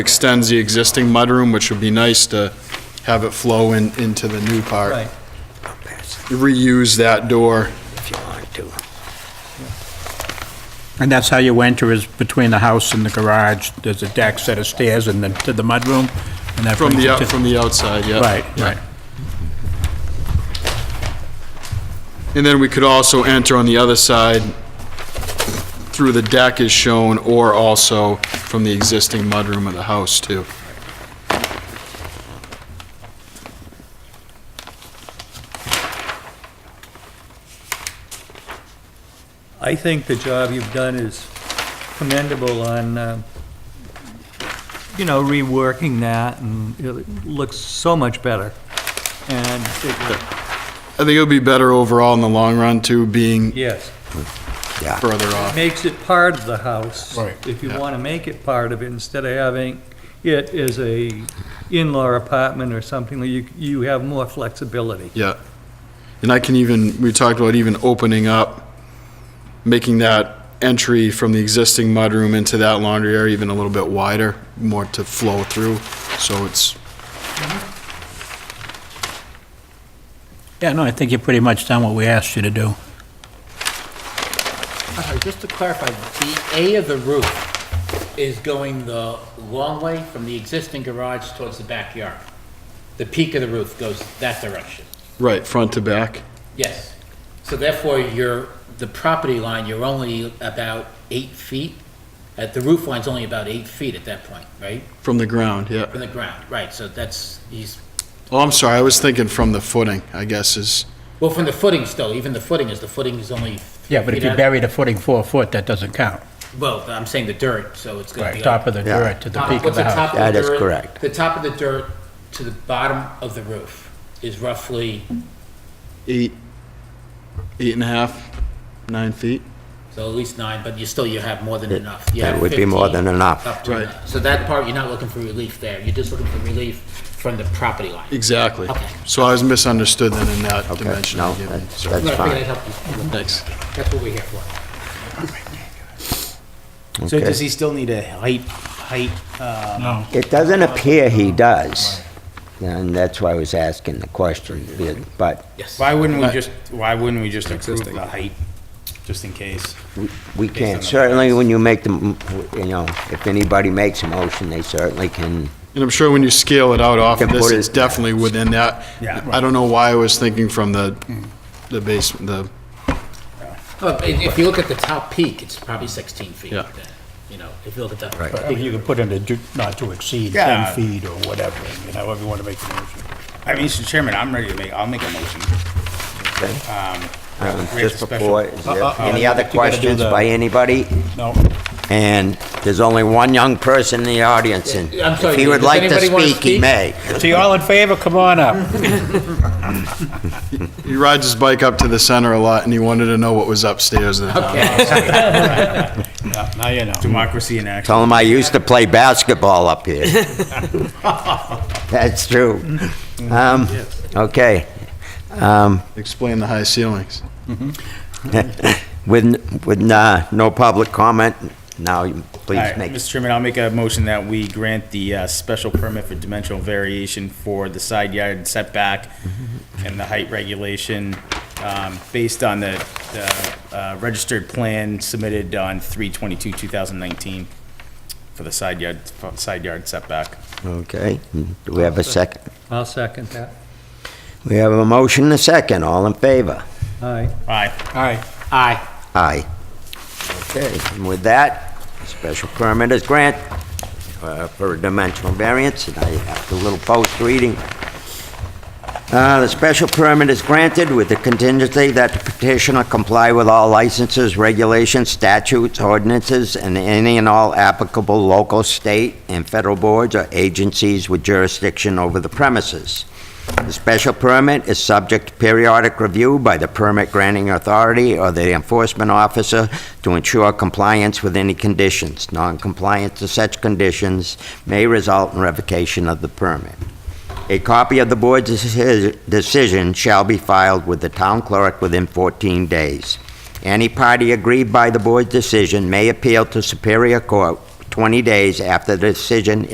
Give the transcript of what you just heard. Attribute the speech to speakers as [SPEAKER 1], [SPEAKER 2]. [SPEAKER 1] extends the existing mudroom, which would be nice to have it flow in, into the new part.
[SPEAKER 2] Right.
[SPEAKER 3] I'll pass
[SPEAKER 1] Reuse that door.
[SPEAKER 3] if you want to.
[SPEAKER 4] And that's how you enter is between the house and the garage, there's a deck, set of stairs, and then to the mudroom, and that
[SPEAKER 1] From the,
[SPEAKER 4] brings you
[SPEAKER 1] out
[SPEAKER 4] to...
[SPEAKER 1] from the outside, yeah.
[SPEAKER 4] Right,
[SPEAKER 1] yeah.
[SPEAKER 4] right.
[SPEAKER 1] And then we could also enter on the other side through the deck as shown, or also from the existing mudroom of the house, too.
[SPEAKER 2] I think the job you've done is commendable on, um, you know, reworking that, and it looks so much better. And, it-
[SPEAKER 1] I think it'll be better overall in the long run, too, being
[SPEAKER 2] yes,
[SPEAKER 3] Yeah,
[SPEAKER 1] further off.
[SPEAKER 2] makes it part of the house.
[SPEAKER 4] Right.
[SPEAKER 2] If you
[SPEAKER 1] Yeah.
[SPEAKER 2] want to make it part of it, instead of having it as a in-law apartment or something, you, you have more flexibility.
[SPEAKER 1] Yeah. And I can even, we talked about even opening up, making that entry from the existing mudroom into that laundry area even a little bit wider, more to flow through, so it's,
[SPEAKER 4] Yeah, no, I think you've pretty much done what we asked you to do.
[SPEAKER 5] I'm sorry, just to clarify, the A of the roof is going the long way from the existing garage towards the backyard. The peak of the roof goes that direction.
[SPEAKER 1] right, front to back.
[SPEAKER 5] Yes. So therefore, your, the property line, you're only about eight feet. Uh, The roof line's only about eight feet at that point, right?
[SPEAKER 1] From the ground, yeah.
[SPEAKER 5] From the ground, right, so that's, he's,
[SPEAKER 1] Oh, I'm sorry, I was thinking from the footing, I guess is,
[SPEAKER 5] well, from the footing still, even the footing is, the footing is only. three
[SPEAKER 4] Yeah, but if
[SPEAKER 5] feet
[SPEAKER 4] you
[SPEAKER 5] out.
[SPEAKER 4] bury the footing four foot, that doesn't count.
[SPEAKER 5] Well, I'm saying the dirt, so it's gonna be.
[SPEAKER 4] Right,
[SPEAKER 5] like-
[SPEAKER 4] top of the
[SPEAKER 3] Yeah.
[SPEAKER 4] dirt to the
[SPEAKER 5] Top-
[SPEAKER 4] peak of
[SPEAKER 5] what's
[SPEAKER 4] the house.
[SPEAKER 5] top of
[SPEAKER 3] That
[SPEAKER 5] the
[SPEAKER 3] is
[SPEAKER 5] dirt-
[SPEAKER 3] correct.
[SPEAKER 5] The top of the dirt to the bottom of the roof is roughly,
[SPEAKER 1] eight, eight and a half, nine feet.
[SPEAKER 5] so at least nine, but you still, you have more than enough. You
[SPEAKER 3] that
[SPEAKER 5] have
[SPEAKER 3] would be more
[SPEAKER 5] 15
[SPEAKER 3] than enough.
[SPEAKER 5] up to
[SPEAKER 1] Right.
[SPEAKER 5] enough. So that part, you're not looking for relief there, you're just looking for relief from the property line.
[SPEAKER 1] Exactly.
[SPEAKER 5] Okay.
[SPEAKER 1] So I was misunderstood then in that
[SPEAKER 3] Okay,
[SPEAKER 1] dimension. I
[SPEAKER 3] no,
[SPEAKER 1] gave you.
[SPEAKER 3] that's,
[SPEAKER 1] Sorry.
[SPEAKER 5] Right,
[SPEAKER 3] that's
[SPEAKER 5] I figured I'd
[SPEAKER 3] fine.
[SPEAKER 5] help you.
[SPEAKER 1] Thanks.
[SPEAKER 5] That's what we're here for.
[SPEAKER 6] So
[SPEAKER 3] Okay.
[SPEAKER 6] does he still need a height, height, uh,
[SPEAKER 4] No.
[SPEAKER 3] It doesn't appear he does, and that's why I was asking the question, but
[SPEAKER 5] Yes.
[SPEAKER 6] why wouldn't we just, why wouldn't we just approve the height, just in case?
[SPEAKER 3] we- we
[SPEAKER 6] Based on
[SPEAKER 3] can't,
[SPEAKER 6] the
[SPEAKER 3] certainly
[SPEAKER 6] plans.
[SPEAKER 3] when you make the, m- you know, if anybody makes a motion, they certainly can,
[SPEAKER 1] And I'm sure when you scale it out off of
[SPEAKER 3] Can
[SPEAKER 1] this,
[SPEAKER 3] put
[SPEAKER 1] it's
[SPEAKER 3] it-
[SPEAKER 1] definitely within that.
[SPEAKER 6] Yeah.
[SPEAKER 1] I don't know why I was thinking from the, the basement, the,
[SPEAKER 5] Well, i- If you look at the top peak, it's probably 16 feet.
[SPEAKER 1] Yeah.
[SPEAKER 5] then, You know, if you look at the.
[SPEAKER 3] Right.
[SPEAKER 4] I think you could put in a do- not to exceed
[SPEAKER 6] Yeah.
[SPEAKER 4] 10 feet or whatever, you know, however you want to make the motion.
[SPEAKER 6] I mean, Mr. Chairman, I'm ready to make, I'll make a motion.
[SPEAKER 3] Okay.
[SPEAKER 6] Um,
[SPEAKER 3] um,
[SPEAKER 6] create a
[SPEAKER 3] just
[SPEAKER 6] special-
[SPEAKER 3] before, is
[SPEAKER 4] Uh,
[SPEAKER 3] there
[SPEAKER 4] uh, uh,
[SPEAKER 3] any
[SPEAKER 4] you
[SPEAKER 3] other
[SPEAKER 4] gotta do
[SPEAKER 3] questions
[SPEAKER 4] the-
[SPEAKER 3] by anybody?
[SPEAKER 4] No,
[SPEAKER 3] And there's only one young person in the audience, and
[SPEAKER 5] I'm sorry,
[SPEAKER 3] if he would
[SPEAKER 5] does
[SPEAKER 3] like to
[SPEAKER 5] anybody wanna
[SPEAKER 3] speak, he
[SPEAKER 5] speak?
[SPEAKER 3] may.
[SPEAKER 4] so you all in favor, come on up.
[SPEAKER 1] he rides his bike up to the center a lot and he wanted to know what was upstairs. and-
[SPEAKER 4] Yeah, Now you know.
[SPEAKER 6] Democracy in action.
[SPEAKER 3] Tell him I used to play basketball up here. That's true. Um, okay. Um,
[SPEAKER 1] Explain the high ceilings.
[SPEAKER 3] with, with, uh, no public comment, now you
[SPEAKER 6] All
[SPEAKER 3] please
[SPEAKER 6] right,
[SPEAKER 3] make.
[SPEAKER 6] Mr. Chairman, I'll make a motion that we grant the uh, special permit for dimensional variation for the side yard setback and the height regulation um, based on the the, uh, registered plan submitted on 3/22/2019 for the side yard, side yard setback.
[SPEAKER 3] Okay, do we have a second?
[SPEAKER 2] I'll second that.
[SPEAKER 3] We have a motion and a second, all in favor?
[SPEAKER 2] Aye.
[SPEAKER 6] Aye.
[SPEAKER 4] Aye.
[SPEAKER 5] Aye.
[SPEAKER 3] Aye. Okay, and with that, special permit is granted uh, for a dimensional variance, and I have the little post reading. Uh, The special permit is granted with the contingency that the petitioner comply with all licenses, regulations, statutes, ordinances, and any and all applicable local, state, and federal boards or agencies with jurisdiction over the premises. The special permit is subject to periodic review by the permit granting authority or the enforcement officer to ensure compliance with any conditions. Non-compliance to such conditions may result in revocation of the permit. A copy of the board's deci- decision shall be filed with the town clerk within 14 days. Any party aggrieved by the board's decision may appeal to Superior Court 20 days after the decision